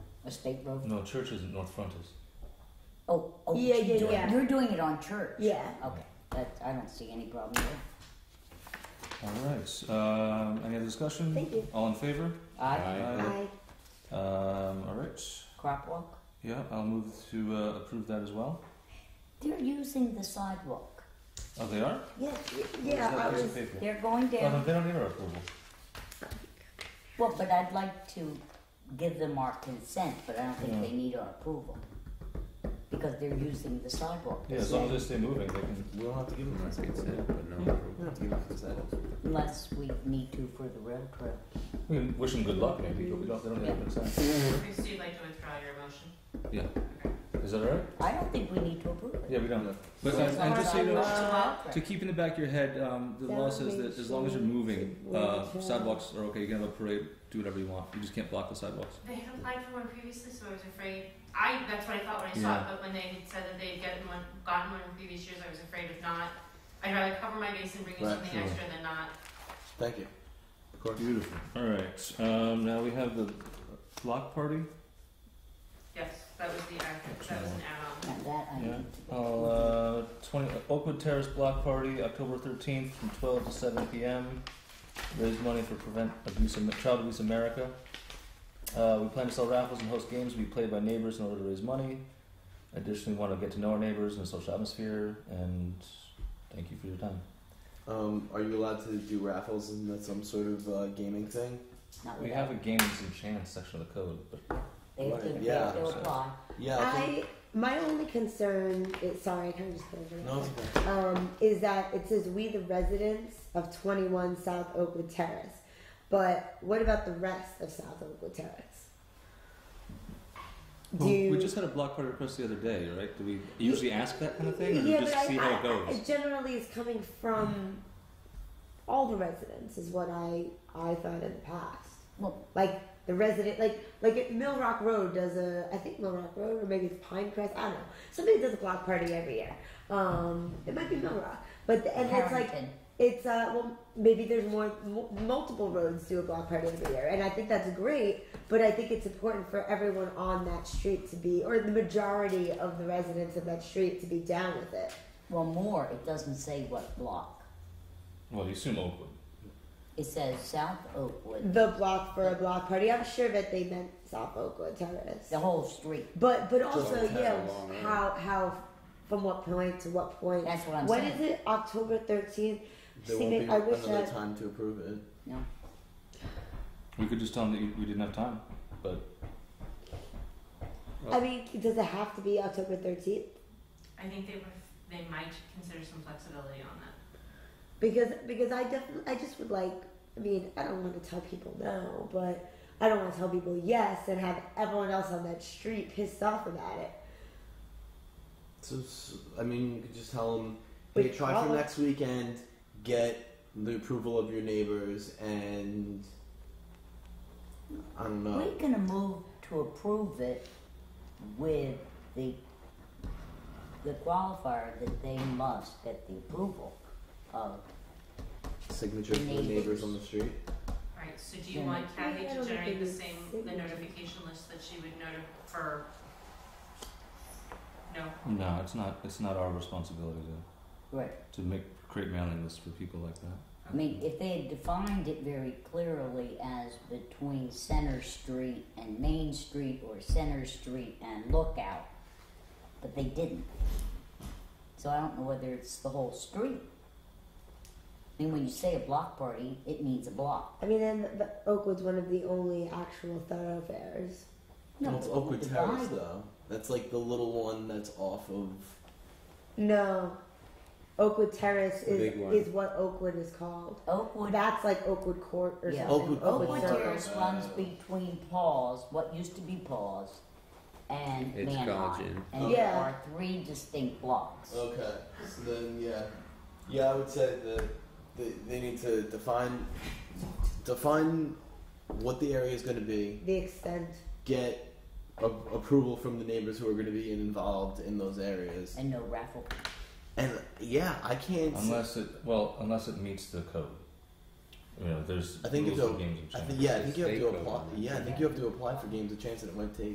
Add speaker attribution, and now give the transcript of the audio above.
Speaker 1: a state road?
Speaker 2: No, church isn't North Front is.
Speaker 1: Oh, oh,
Speaker 3: Yeah,
Speaker 1: you're
Speaker 3: yeah,
Speaker 1: doing-
Speaker 3: yeah.
Speaker 1: You're doing it on church?
Speaker 3: Yeah.
Speaker 1: Okay, that, I don't see any problem there.
Speaker 2: All right. Um, any other discussion?
Speaker 3: Thank you.
Speaker 2: All in favor?
Speaker 1: Aye,
Speaker 3: Aye.
Speaker 2: Um, all right.
Speaker 1: crop walk?
Speaker 2: Yeah, I'll move to uh, approve that as well.
Speaker 1: They're using the sidewalk.
Speaker 2: Oh, they are.
Speaker 3: Yes, y-
Speaker 2: Where's
Speaker 3: yeah, I
Speaker 2: that piece
Speaker 3: was.
Speaker 2: of paper?
Speaker 1: They're going
Speaker 2: Oh, no,
Speaker 1: down,
Speaker 2: they don't need our approval.
Speaker 1: well, but I'd like to give them our consent, but I don't think
Speaker 2: Yeah.
Speaker 1: they need our approval. Because they're using the sidewalk.
Speaker 2: Yeah, as long as they stay moving, they can.
Speaker 4: We don't have to give them our consent, but no approval. We don't have to give them consent.
Speaker 1: Unless we need to for the rail trail.
Speaker 2: We can wish them good luck, maybe, but we don't. They don't need our consent.
Speaker 5: So you'd like to withdraw your motion?
Speaker 2: Yeah.
Speaker 5: Okay.
Speaker 2: Is that all right? uh,
Speaker 1: I don't think we need to approve it.
Speaker 2: Yeah, we don't.
Speaker 4: But
Speaker 1: As
Speaker 4: and,
Speaker 1: long
Speaker 4: and just so you
Speaker 1: as
Speaker 4: know,
Speaker 1: it's a rail trail.
Speaker 4: to keep in the back of your head, um, the law says that as long as you're moving, uh, sidewalks are okay. You can have a parade, do whatever you want. You just can't block the sidewalks.
Speaker 5: They had applied for one previously, so I was afraid, I, that's what I thought when I saw
Speaker 2: Yeah.
Speaker 5: it, but when they had said that they'd gotten one, gotten one in previous years, I was afraid of not. I'd rather cover my base and bring you
Speaker 4: Right,
Speaker 5: something
Speaker 2: sure.
Speaker 5: extra than not.
Speaker 4: Thank you.
Speaker 2: Beautiful. All right. Um, now we have the block party.
Speaker 5: Yes, that was the, act- that was an add-on.
Speaker 1: And that I
Speaker 2: Yeah.
Speaker 1: need to.
Speaker 2: Uh, 20, Oakwood Terrace Block Party, October 13th from 12 to 7 p.m. Raise money for Prevent Abuse Am- Child Abuse America. Uh, we plan to sell raffles and host games to be played by neighbors in order to raise money. Additionally, we want to get to know our neighbors in a social atmosphere, and thank you for your time.
Speaker 4: Um, are you allowed to do raffles and that some sort of uh, gaming thing?
Speaker 1: Not
Speaker 2: We
Speaker 1: without-
Speaker 2: have a games and chance section of the code, but
Speaker 1: They have to, they
Speaker 4: Yeah.
Speaker 1: have to apply.
Speaker 4: Yeah.
Speaker 3: I my only concern is sorry, I kind of just got over it.
Speaker 4: No, it's okay.
Speaker 3: um, is that it says we the residents of 21 South Oakwood Terrace, but what about the rest of South Oakwood Terrace? Do
Speaker 4: Well, we just had a block party request the other day, right? Do we usually ask that kind of thing, or do
Speaker 3: yeah,
Speaker 4: we just
Speaker 3: but
Speaker 4: see
Speaker 3: I,
Speaker 4: how
Speaker 3: I-
Speaker 4: it goes?
Speaker 3: It generally is coming from all the residents, is what I I thought in the past.
Speaker 1: Well-
Speaker 3: like the resident, like like at Mill Rock Road does a, I think Mill Rock Road or maybe it's Pinecrest, I don't know. Somebody does a block party every year. Um, it might be Mill Rock, but the, and it's like
Speaker 1: Harrington.
Speaker 3: it's uh well maybe there's more m- multiple roads do a block party every year and i think that's great but i think it's important for everyone on that street to be or the majority of the residents of that street to be down with it
Speaker 1: Well, more, it doesn't say what block.
Speaker 2: well, you assume Oakwood.
Speaker 1: It says South Oakwood,
Speaker 3: the block for a block party i'm sure that they meant south oakwood terrace
Speaker 1: the whole street.
Speaker 3: but but also
Speaker 4: Just
Speaker 3: yeah
Speaker 4: have a long road.
Speaker 3: how how from what point to what point
Speaker 1: That's what I'm
Speaker 3: When
Speaker 1: saying.
Speaker 3: is it october 13th
Speaker 4: There
Speaker 3: See,
Speaker 4: won't be
Speaker 3: I wish
Speaker 4: another
Speaker 3: I-
Speaker 4: time to approve it.
Speaker 1: No,
Speaker 2: We could just tell them that you- we didn't have time, but
Speaker 3: i mean does it have to be october 13th
Speaker 5: I think they were, they might consider some flexibility on that.
Speaker 3: because because I definitely I just would like I mean I don't want to tell people no, but I don't want to tell people yes and have everyone else on that street pissed off about it.
Speaker 4: So, s I I mean, you could just tell them,
Speaker 3: Wait,
Speaker 4: hey, try for
Speaker 3: probably-
Speaker 4: next weekend, get the approval of your neighbors, and I don't know.
Speaker 1: we're gonna move to approve it with the, the qualifier that they must get the approval of.
Speaker 4: Signature from the neighbors on the street.
Speaker 5: Alright, so do you
Speaker 1: Yeah.
Speaker 5: want Kathy
Speaker 3: Yeah, I
Speaker 5: to
Speaker 3: don't
Speaker 5: generate
Speaker 3: think
Speaker 5: the
Speaker 3: it's
Speaker 5: same, the
Speaker 3: signatures.
Speaker 5: notification list that she would notify for? No,
Speaker 2: no, it's not. It's not our responsibility to
Speaker 1: Right.
Speaker 2: to make create mailing lists for people like that.
Speaker 1: I mean, if they had defined it very clearly as between Center Street and Main Street or Center Street and Lookout, but they didn't. So I don't know whether it's the whole street. I mean, when you say a block party, it means a block.
Speaker 3: I mean, and the, Oakwood's one of the only actual thoroughfares.
Speaker 4: well, it's Oakwood
Speaker 1: divided.
Speaker 4: Terrace, though. That's like the little one that's off of.
Speaker 3: No, Oakwood Terrace
Speaker 4: The
Speaker 3: is
Speaker 4: big one.
Speaker 3: is what Oakwood is called.
Speaker 1: Oakwood,
Speaker 3: That's like Oakwood Court or
Speaker 1: Yeah.
Speaker 3: something.
Speaker 4: Oakwood-
Speaker 1: Oakwood
Speaker 4: Oakwood
Speaker 3: Circle.
Speaker 1: Terrace runs between Paws, what used to be Paws, and
Speaker 6: It's
Speaker 1: Manheim.
Speaker 6: Belgian.
Speaker 1: And there
Speaker 3: Yeah.
Speaker 1: are three distinct blocks.
Speaker 4: Okay, so then yeah, yeah, I would say that they, they need to define define what the area is going to be.
Speaker 3: The extent.
Speaker 4: get a- approval from the neighbors who are going to be involved in those areas.
Speaker 1: And no raffle.
Speaker 4: And yeah, I can't. see-
Speaker 2: Unless it well, unless it meets the code. You know, there's
Speaker 4: I think
Speaker 2: rules
Speaker 4: it's
Speaker 2: for
Speaker 4: a-
Speaker 2: games of
Speaker 4: I
Speaker 2: chance.
Speaker 4: think yeah, I think you have to
Speaker 6: State
Speaker 4: apply.
Speaker 6: code.
Speaker 4: Yeah, I think you have to apply for games of chance, and it might take